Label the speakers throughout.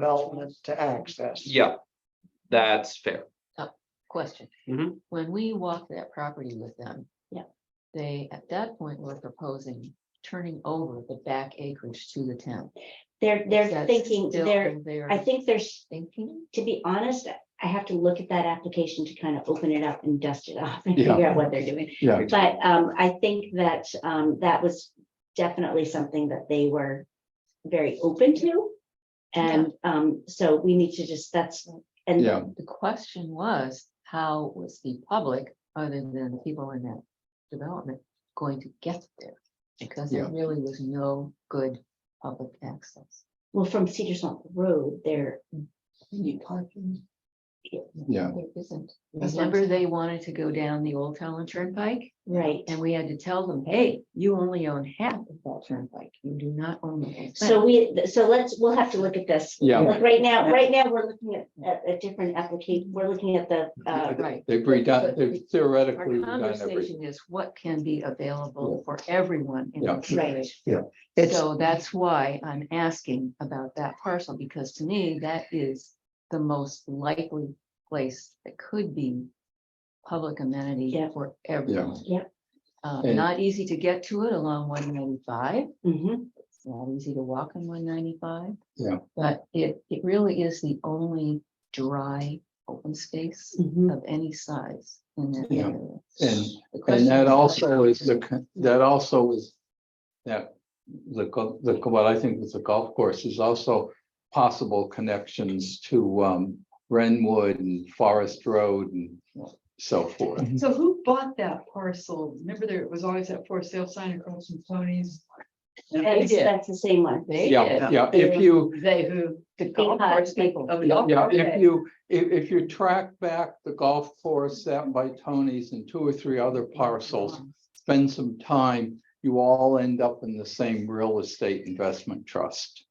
Speaker 1: development to access.
Speaker 2: Yeah, that's fair.
Speaker 3: Question.
Speaker 2: Mhm.
Speaker 3: When we walked that property with them.
Speaker 4: Yeah.
Speaker 3: They, at that point, were proposing turning over the back acreage to the town.
Speaker 4: They're,
Speaker 3: Is
Speaker 4: they're
Speaker 3: that
Speaker 4: thinking,
Speaker 3: still
Speaker 4: they're,
Speaker 3: in their
Speaker 4: I think there's,
Speaker 3: Thinking,
Speaker 4: to be honest, I have to look at that application to kind of open it up and dust it off and
Speaker 5: Yeah.
Speaker 4: figure out what they're doing.
Speaker 5: Yeah.
Speaker 4: But um, I think that um, that was definitely something that they were very open to. And um, so we need to just, that's,
Speaker 5: Yeah.
Speaker 4: and
Speaker 3: the question was, how was the public, other than the people in that development, going to get there? Because there
Speaker 5: Yeah.
Speaker 3: really was no good public access.
Speaker 4: well, from Cedar Swamp Road, there,
Speaker 3: You need parking.
Speaker 5: Yeah.
Speaker 3: There isn't.
Speaker 4: That's what I'm
Speaker 3: Remember, they wanted to go down the Old Town Turnpike?
Speaker 4: right.
Speaker 3: And we had to tell them, hey, you only own half of that turnpike. You do not own the whole
Speaker 4: So
Speaker 3: thing."
Speaker 4: we, so let's, we'll have to look at this.
Speaker 5: Yeah.
Speaker 4: Like right now, right now, we're looking at at a different application. We're looking at the uh,
Speaker 3: Right.
Speaker 5: They've redone, they've
Speaker 3: Our
Speaker 5: theoretically redone everything.
Speaker 3: conversation is what can be available for everyone in
Speaker 5: Yeah.
Speaker 3: the village.
Speaker 1: It's,
Speaker 3: So that's why I'm asking about that parcel, because to me, that is the most likely place that could be public amenity
Speaker 4: Yeah.
Speaker 3: for everyone.
Speaker 4: Yeah.
Speaker 3: Uh,
Speaker 5: And-
Speaker 3: not easy to get to it along one ninety-five.
Speaker 4: mhm,
Speaker 3: It's not easy to walk on one ninety-five.
Speaker 5: Yeah.
Speaker 3: But it, it really is the only dry open space
Speaker 4: mhm.
Speaker 3: of any size in that
Speaker 5: Yeah.
Speaker 3: area.
Speaker 5: And,
Speaker 3: The question
Speaker 5: and that
Speaker 3: is-
Speaker 5: also is the, con- that also is. That, the, go- the, what I think is the golf course is also possible connections to, um, Renwood and Forest Road and so forth.
Speaker 6: So who bought that parcel? Remember there was always that for sale sign across from Tony's?
Speaker 4: That's,
Speaker 6: did.
Speaker 4: that's the same one.
Speaker 3: They
Speaker 5: Yeah,
Speaker 3: did,
Speaker 5: yeah, if you,
Speaker 6: They who? The
Speaker 4: golf course people.
Speaker 6: Oh, the golf
Speaker 5: yeah,
Speaker 6: course.
Speaker 5: if you, if, if you track back the golf course that by Tony's and two or three other parcels. Spend some time, you all end up in the same real estate investment trust.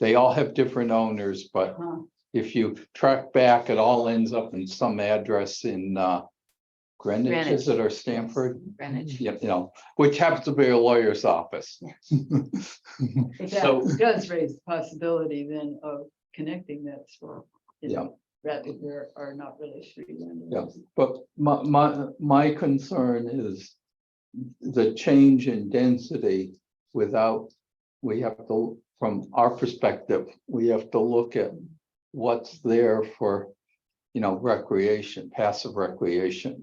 Speaker 5: They all have different owners, but
Speaker 6: Uh-huh.
Speaker 5: if you track back, it all ends up in some address in uh. Greenwich, is it, or Stanford?
Speaker 3: Greenwich.
Speaker 5: Yep, you know, which happens to be a lawyer's office.
Speaker 6: But
Speaker 2: So-
Speaker 6: That does raise the possibility then of connecting that swamp. you
Speaker 5: Yeah.
Speaker 6: know, Rather there are not really street
Speaker 5: Yes. But my, my, my concern is the change in density without, we have to, from our perspective, we have to look at what's there for, you know, recreation, passive recreation.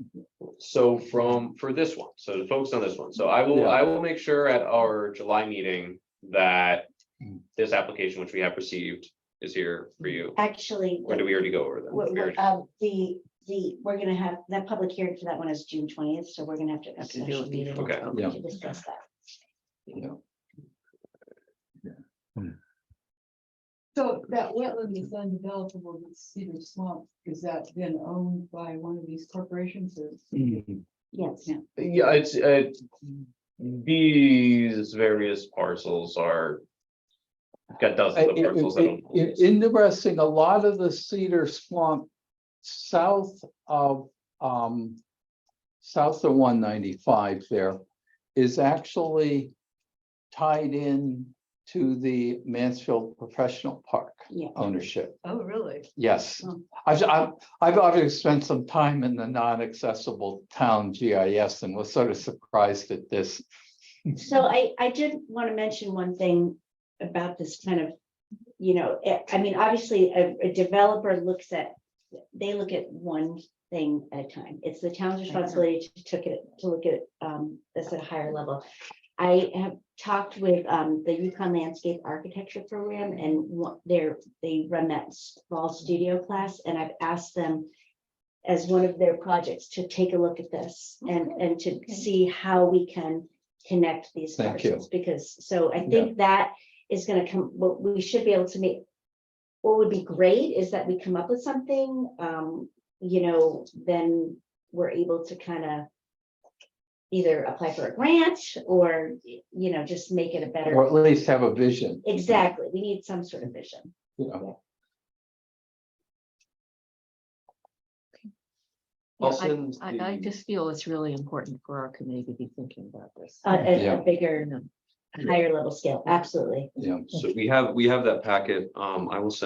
Speaker 2: So from, for this one, so to focus on this one, so I will,
Speaker 5: Yeah.
Speaker 2: I will make sure at our July meeting that
Speaker 5: Mm.
Speaker 2: this application, which we have received, is here for you,
Speaker 4: Actually.
Speaker 2: or do we already go over that?
Speaker 4: What,
Speaker 2: We already-
Speaker 4: um, the, the, we're gonna have, that public hearing for that one is June twentieth, so we're gonna have to. have a
Speaker 3: Have to do
Speaker 4: special
Speaker 3: it
Speaker 4: meeting
Speaker 2: before.
Speaker 5: Okay. Yeah.
Speaker 4: To discuss that.
Speaker 5: you
Speaker 6: So that wetland is undevelopable with Cedar Swamp. Is that then owned by one of these corporations or?
Speaker 5: know.
Speaker 4: Yes,
Speaker 6: Yeah.
Speaker 2: Yeah, it's, uh, these various parcels are. Got dozens of
Speaker 5: It-
Speaker 2: parcels. I
Speaker 5: it-
Speaker 2: don't-
Speaker 5: it- Interesting, a lot of the cedar swamp south of, um, south of one ninety-five there is actually tied in to the Mansfield Professional Park
Speaker 4: yeah.
Speaker 5: ownership.
Speaker 6: Oh, really?
Speaker 5: Yes,
Speaker 6: Hmm.
Speaker 5: I've, I've, I've obviously spent some time in the non-accessible town GIS and was sort of surprised at this.
Speaker 4: So I, I did want to mention one thing about this kind of, you know, eh, I mean, obviously, a, a developer looks at, they look at one thing at a time. It's the town's responsibility to took it, to look at um, this at a higher level. I have talked with um, the Yukon Landscape Architecture Program and what they're, they run that small studio class, and I've asked them as one of their projects to take a look at this and, and to see how we can connect these
Speaker 5: Thank you.
Speaker 4: parcels, because, so I think that is gonna come, what we should be able to make. What would be great is that we come up with something, um, you know, then we're able to kind of. Either apply for a grant or, you know, just make it a
Speaker 5: Or
Speaker 4: better,
Speaker 5: at least have a vision,
Speaker 4: exactly, we need some sort of vision.
Speaker 5: you know.
Speaker 3: Yeah,
Speaker 2: I'll
Speaker 3: I-
Speaker 2: send
Speaker 3: I, I
Speaker 2: the-
Speaker 3: just feel it's really important for our committee to be thinking about this.
Speaker 4: Uh, a-
Speaker 5: Yeah.
Speaker 4: a bigger,
Speaker 3: You know,
Speaker 4: higher level scale, absolutely.
Speaker 5: yeah.
Speaker 2: So we have, we have that packet. Um, I will send